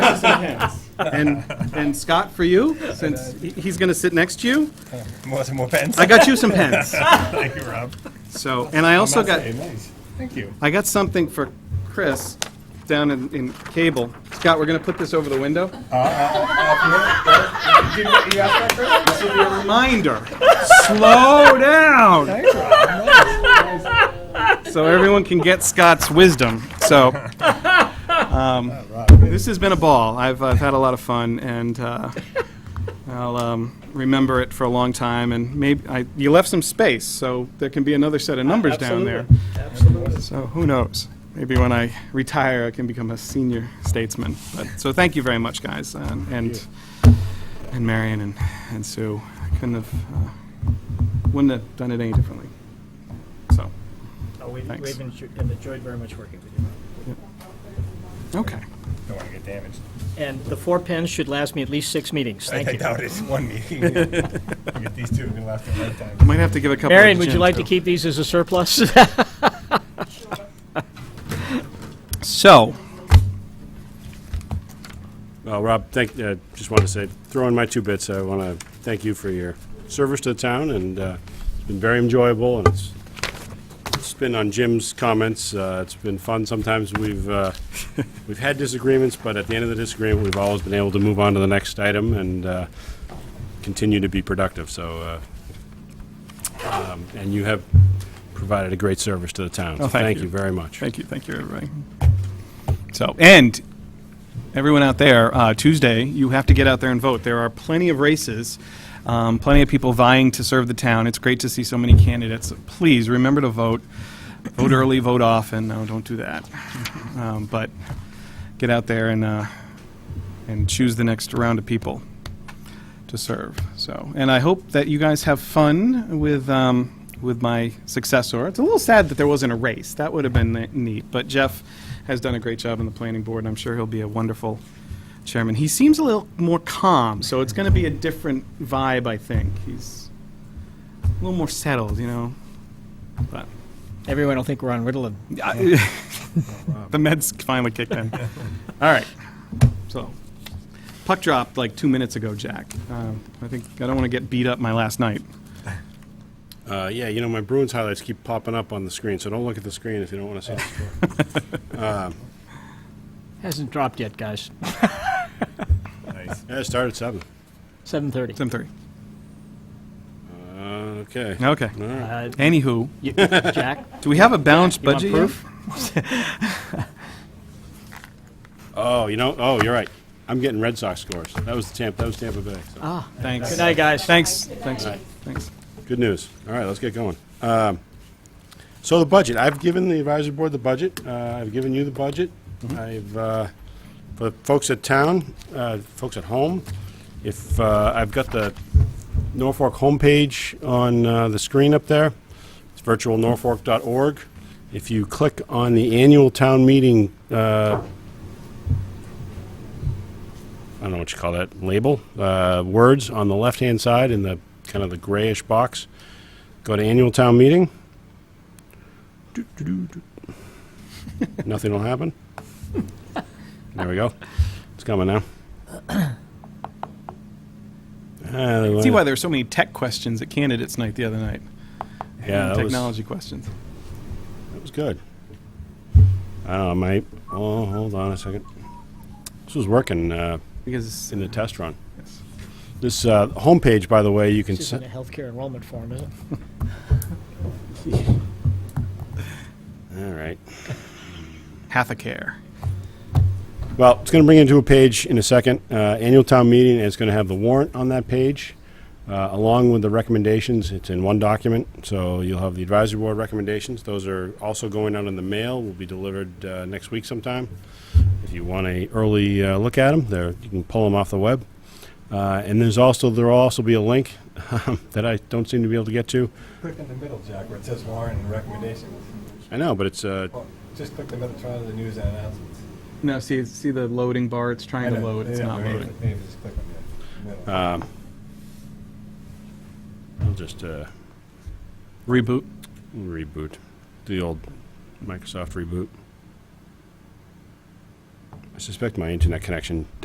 And, and Scott, for you, since he- he's going to sit next to you, More, some more pens. I got you some pens. Thank you, Rob. So, and I also Must got, say, nice. Thank you. I got something for Chris down in, in cable. Scott, we're going to put this over the window. Uh, Did you, you ask that This will be a reminder, slow down, Thanks, Rob. so everyone can get Scott's wisdom. So, um, this has been a ball. I've, I've had a lot of fun, and uh, I'll um, remember it for a long time. And maybe, I, you left some space, so there can be another set of numbers down there. Absolutely. So who knows? Maybe when I retire, I can become a senior statesman. But, so thank you very much, guys, uh, and and, and Marion and, and Sue. I couldn't have, uh, wouldn't have done it any differently. So, Oh, we- Thanks. We've enjo- have enjoyed very much working with you. okay. Don't want to get damaged. And the four pens should last me at least six meetings. I, Thank I you. doubt it's one meeting. You get these two, we last a lifetime. Might have to give a couple. Marion, to would you Jim, like to too. keep these as a surplus? So, Well, Rob, thank, uh, just want to say, throw in my two bits. I want to thank you for your service to the town, and uh, it's been very enjoyable, and it's, it's been on Jim's comments. uh, It's been fun. Sometimes we've, uh, we've had disagreements, but at the end of the disagreement, we've always been able to move on to the next item and uh, continue to be productive, so. uh, um, And you have provided a great service to the town. so Oh, thank you. Thank you very much. thank you, thank you, everybody. So, and everyone out there, uh, Tuesday, you have to get out there and vote. There are plenty of races, um, plenty of people vying to serve the town. It's great to see so many candidates. Please remember to vote. Vote early, vote often. No, don't do that. Um, but get out there and uh, and choose the next round of people to serve. So, and I hope that you guys have fun with. Um, with my successor. It's a little sad that there wasn't a race. That would have been ne- neat. But Jeff has done a great job on the planning board, and I'm sure he'll be a wonderful chairman. He seems a little more calm, so it's going to be a different vibe, I think. He's a little more settled, you know. But Everyone will think we're on Ritalin. I- the meds finally kicked in. All right. So, puck dropped like two minutes ago, Jack. Um, I think I don't want to get beat up my last night. Uh, yeah, you know, my Bruins highlights keep popping up on the screen, so don't look at the screen if you don't want to see the score. Hasn't dropped yet, guys. Nice. Yeah, it started at 7. 7:30. Seven thirty. Uh, okay. Okay. All right. Uh, Anywho, you- Jack? do we have a balanced You want budget? proof? yet? Oh, you know, oh, you're right. I'm getting Red Sox scores. That was the Tampa, that was Tampa Bay. so. Ah, Thanks. good night, guys. Thanks. Thanks. All right. Thanks. Good news. All right, let's get going. Um, so the budget, I've given the advisory board the budget. Uh, I've given you the budget. I've, uh, for the folks at town, uh, folks at home, if, uh, I've got the Norfolk homepage on, uh, the screen up there. It's virtualnorfolk.org. If you click on the annual town meeting, uh, I don't know what you call that label, uh, words on the left hand side in the kind of the grayish box. Go to annual town meeting. Doo, doo, doo, doo. Nothing will happen. There we go. It's coming now. See why there were so many tech questions at candidates night the other night. Yeah, And that was- technology questions. That was good. I don't know, mate. Oh, hold on a second. This was working uh, Because in the test run. yes. This uh, homepage, by the way, you can. This se- isn't a healthcare enrollment form, is it? All right. half a care. Well, it's going to bring you to a page in a second. Uh, Annual town meeting is going to have the warrant on that page, uh, along with the recommendations. It's in one document, so you'll have the advisory board recommendations. Those are also going out in the mail, will be delivered uh, next week sometime. If you want a early uh, look at them, there, you can pull them off the web. Uh, And there's also, there'll also be a link that I don't seem to be able to get to. Click in the middle, Jack, where it says warrant and recommendations. I know, but it's, uh, Well, just click the middle, try the news and announcements. No, see, see the loading bar. It's trying to I know. load. It's Yeah, not maybe- loading. Maybe just click on the middle. I'll just uh, Reboot. reboot, the old Microsoft reboot. I I suspect my internet connection